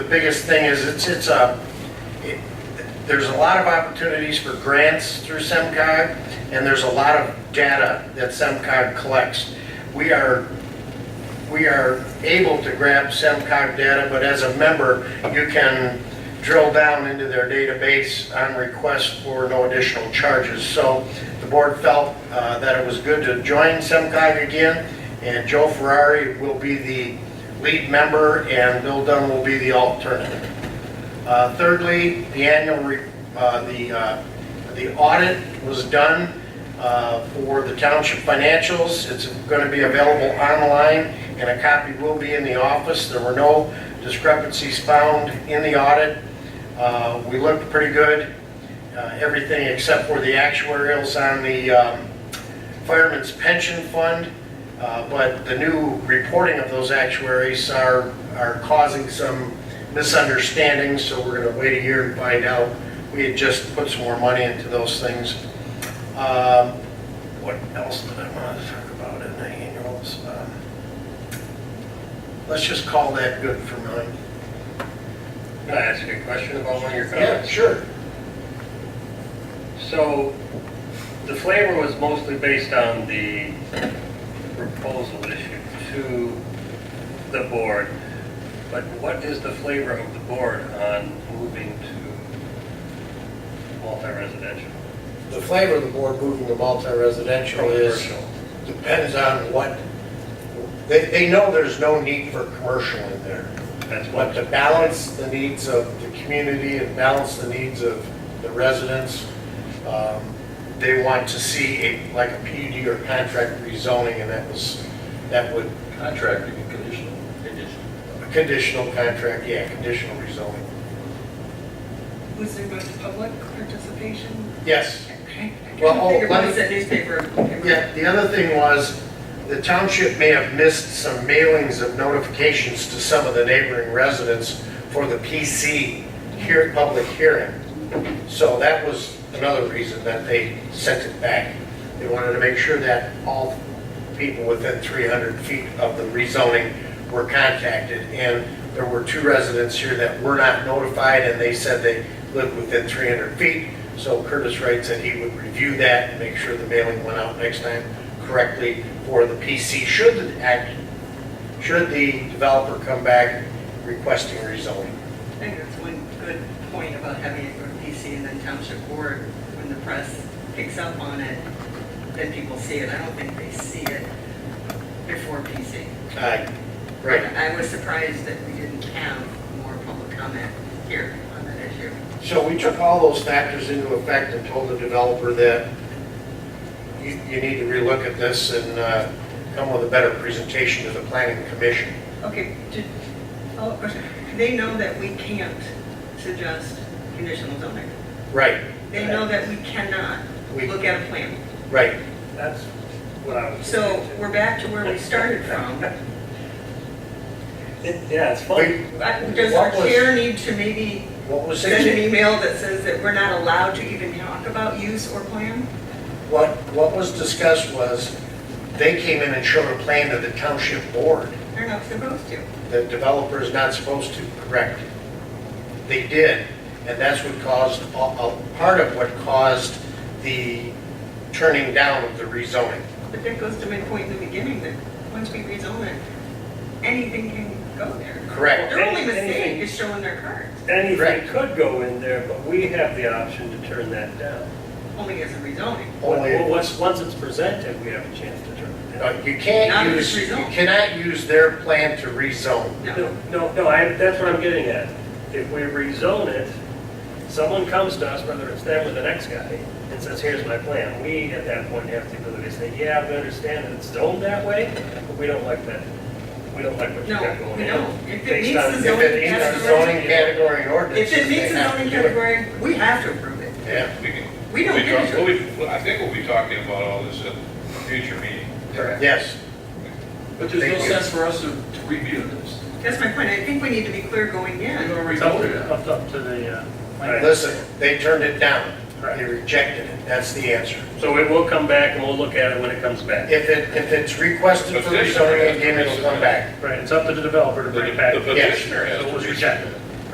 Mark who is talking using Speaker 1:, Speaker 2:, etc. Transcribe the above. Speaker 1: The biggest thing is it's, it's a, it- there's a lot of opportunities for grants through SEMCOG, and there's a lot of data that SEMCOG collects. We are, we are able to grab SEMCOG data, but as a member, you can drill down into their database on request for no additional charges. So the board felt uh, that it was good to join SEMCOG again, and Joe Ferrari will be the lead member, and Bill Dunn will be the alternate. Uh, Thirdly, the annual, re- uh, the, uh, the audit was done uh, for the township financials. It's going to be available online, and a copy will be in the office. There were no discrepancies found in the audit. Uh, We looked pretty good, uh, everything except for the actuarials on the um, Fireman's Pension Fund, uh, but the new reporting of those actuaries are, are causing some misunderstandings, so we're gonna wait a year and find out. We had just put some more money into those things. Um, What else did I wanna talk about in the annuals? Um, Let's just call that good for now.
Speaker 2: Can I ask you a question about one of your
Speaker 1: Yeah,
Speaker 2: comments?
Speaker 1: sure.
Speaker 2: So the flavor was mostly based on the proposal issued to the board, but what is the flavor of the board on moving to multi-residential?
Speaker 1: The flavor of the board moving to multi-residential is.
Speaker 2: Commercial.
Speaker 1: depends on what, they, they know there's no need for commercial in there,
Speaker 2: That's
Speaker 1: but
Speaker 2: what,
Speaker 1: to balance the needs of the community and balance the needs of the residents, um, they want to see a, like a PUD or contract rezoning, and that was, that would,
Speaker 3: Contract, you can conditional.
Speaker 1: a conditional contract, yeah, conditional rezoning.
Speaker 4: Was there much public participation?
Speaker 1: Yes.
Speaker 4: Okay. I
Speaker 1: Well,
Speaker 4: couldn't
Speaker 1: oh,
Speaker 4: figure
Speaker 1: let me-
Speaker 4: out what's that newspaper.
Speaker 1: Yeah, the other thing was, the township may have missed some mailings of notifications to some of the neighboring residents for the PC here, public hearing. So that was another reason that they sent it back. They wanted to make sure that all people within 300 feet of the rezoning were contacted. And there were two residents here that were not notified, and they said they lived within 300 feet. So Curtis Wright said he would review that and make sure the mailing went out next time correctly for the PC, should the act, should the developer come back requesting rezoning.
Speaker 4: I think that's one good point about having it go to PC and then township board, when the press picks up on it, then people see it. I don't think they see it before PC.
Speaker 1: Aye, right.
Speaker 4: I was surprised that we didn't have more public comment here on that issue.
Speaker 1: So we took all those factors into effect and told the developer that you, you need to relook at this and uh, come with a better presentation to the planning commission.
Speaker 4: Okay, did, oh, do they know that we can't suggest conditional zoning.
Speaker 1: Right,
Speaker 4: They know that we cannot
Speaker 1: We-
Speaker 4: look at a plan.
Speaker 1: right.
Speaker 2: that's what I was.
Speaker 4: So we're back to where we started from.
Speaker 2: It- Yeah, it's
Speaker 1: We-
Speaker 2: funny.
Speaker 4: I- Does our
Speaker 1: What was-
Speaker 4: chair need to maybe
Speaker 1: What was
Speaker 4: send an
Speaker 1: it?
Speaker 4: email that says that we're not allowed to even talk about use or plan?
Speaker 1: What, what was discussed was, they came in and showed a plan to the township board.
Speaker 4: They're not supposed to.
Speaker 1: The developer is not supposed to, correct? They did, and that's what caused, a, a part of what caused the turning down of the rezoning.
Speaker 4: But that goes to my point in the beginning, that once we rezone it, anything can go there.
Speaker 1: Correct.
Speaker 4: Their only
Speaker 2: Anything-
Speaker 4: mistake is showing their cards,
Speaker 2: Anything
Speaker 1: Correct.
Speaker 2: could go in there, but we have the option to turn that down.
Speaker 4: only as a rezoning.
Speaker 1: Only-
Speaker 2: Well, once, once it's presented, we have a chance to turn it down.
Speaker 1: No, Uh, You
Speaker 4: Not
Speaker 1: can't
Speaker 4: if
Speaker 1: use,
Speaker 4: it's
Speaker 1: you
Speaker 4: rezoned.
Speaker 1: cannot use their plan to rezone.
Speaker 4: No,
Speaker 2: No, no, no, I, that's what I'm getting at. If we rezone it, someone comes to us, whether it's them or the next guy, and says, here's my plan. We, at that point, have the ability to say, yeah, we understand that it's zoned that way, but we don't like that. We don't like what you got
Speaker 4: no,
Speaker 2: going
Speaker 4: we
Speaker 2: on.
Speaker 4: don't. If it
Speaker 2: Based
Speaker 4: meets
Speaker 2: on-
Speaker 4: the
Speaker 1: If
Speaker 4: zoning
Speaker 1: it meets the
Speaker 4: category,
Speaker 1: zoning category and
Speaker 4: if
Speaker 1: ordinances,
Speaker 4: it meets
Speaker 1: they
Speaker 4: the
Speaker 1: have
Speaker 4: zoning
Speaker 1: to do it.
Speaker 4: category, we have to approve it.
Speaker 1: Yeah,
Speaker 5: We can-
Speaker 4: We don't
Speaker 5: we
Speaker 4: get
Speaker 5: talk-
Speaker 4: to.
Speaker 5: we- I think we'll be talking about all this at a future meeting.
Speaker 2: Correct.
Speaker 1: yes,
Speaker 3: But there's no
Speaker 1: Thank you.
Speaker 3: sense for us to to review this.
Speaker 4: That's my point. I think we need to be clear going
Speaker 3: We
Speaker 4: in.
Speaker 3: already
Speaker 2: It's up
Speaker 3: voted
Speaker 2: to,
Speaker 3: on it.
Speaker 2: up- up to the, uh, Right.
Speaker 1: listen, they turned it down. They
Speaker 2: Correct.
Speaker 1: rejected it, that's the answer.
Speaker 2: so it will come back and we'll look at it when it comes back.
Speaker 1: If it, if it's requested for
Speaker 5: Petition.
Speaker 1: rezoning again, it'll come back.
Speaker 2: Right, it's up to the developer to bring it back.
Speaker 5: The petitioner has
Speaker 2: So
Speaker 5: to
Speaker 2: it was
Speaker 5: reach-
Speaker 2: rejected.